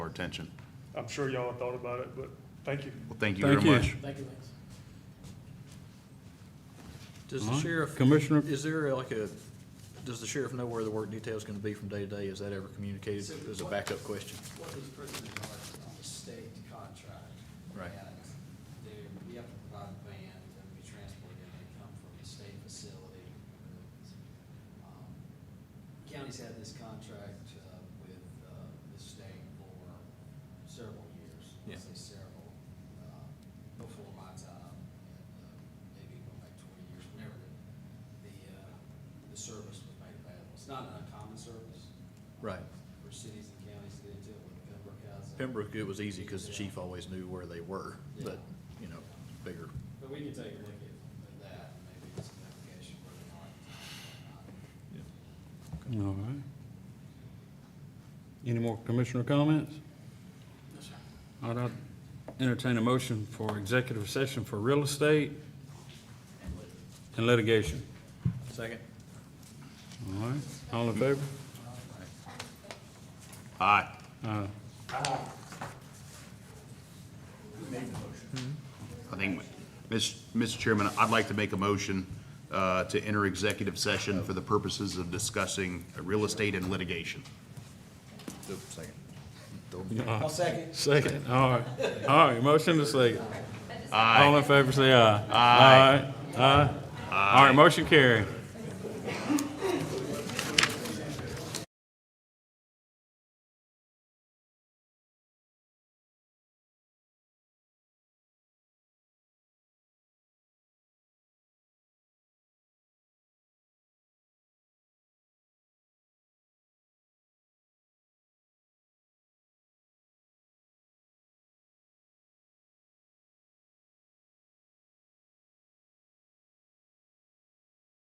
attention. I'm sure y'all have thought about it, but thank you. Well, thank you very Thank much. you. Thank you, Lance. Does the Alright, sheriff? Commissioner- Is there like a, does the sheriff know where the work detail's gonna be from day to day? Is that ever communicated as a backup question? What these prisoners are is on the state contract. Right. And they, we have to provide a van, they're gonna be transported, they come from a state facility. Um, County's had this contract, uh, with, uh, the state for several years. Yeah. I say several, uh, before my time, and, uh, maybe going back twenty years, whenever the, the, uh, the service was made available. It's not an uncommon service. Right. For cities and counties to get into it, with Pembroke has it. Pembroke, it was easy because the chief always knew where they were, but, you know, bigger. But we can take a look at that, and maybe it's an application where they are. All right. Any more commissioner comments? All right, I'd entertain a motion for executive session for real estate and litigation. Second? All right, all in favor? Aye. Aye. I think, Ms. Mr. Chairman, I'd like to make a motion uh, to enter executive session for the purposes of discussing real estate and litigation. Second. I'll second. Second, all right, all right, motion to second. Aye. All in favor, say aye. Aye. Aye. All right, motion carried.